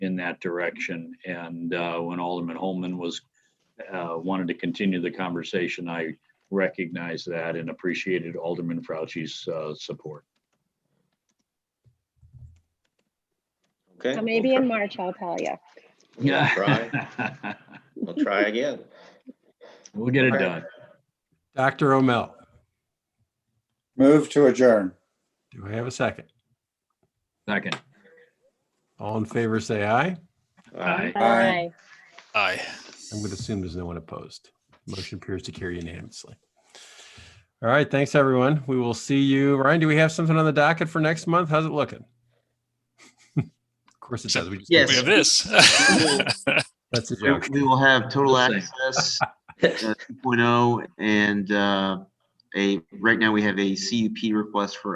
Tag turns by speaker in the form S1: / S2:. S1: that direction. And uh, when Alderman Holman was, uh, wanted to continue the conversation, I recognized that and appreciated Alderman Fauci's uh, support.
S2: Okay.
S3: So maybe
S2: we'll
S3: in March, I'll tell you.
S1: Yeah.
S2: try- We'll try again.
S1: We'll get it done.
S4: Dr. O'Mell,
S5: Move to adjourn.
S4: do I have a second?
S1: Second.
S4: All in favor, say aye.
S1: Aye.
S5: Aye.
S6: Aye.
S4: I'm going to assume there's no one opposed. Motion appears to carry unanimously. All right, thanks, everyone. We will see you. Ryan, do we have something on the docket for next month? How's it looking? Of course it does. We just-
S7: Yes.
S6: We have this.
S4: That's a
S7: We
S4: joke.
S7: we will have total
S1: Same.
S7: access uh, 2.0 and uh, a, right now we have a CUP request for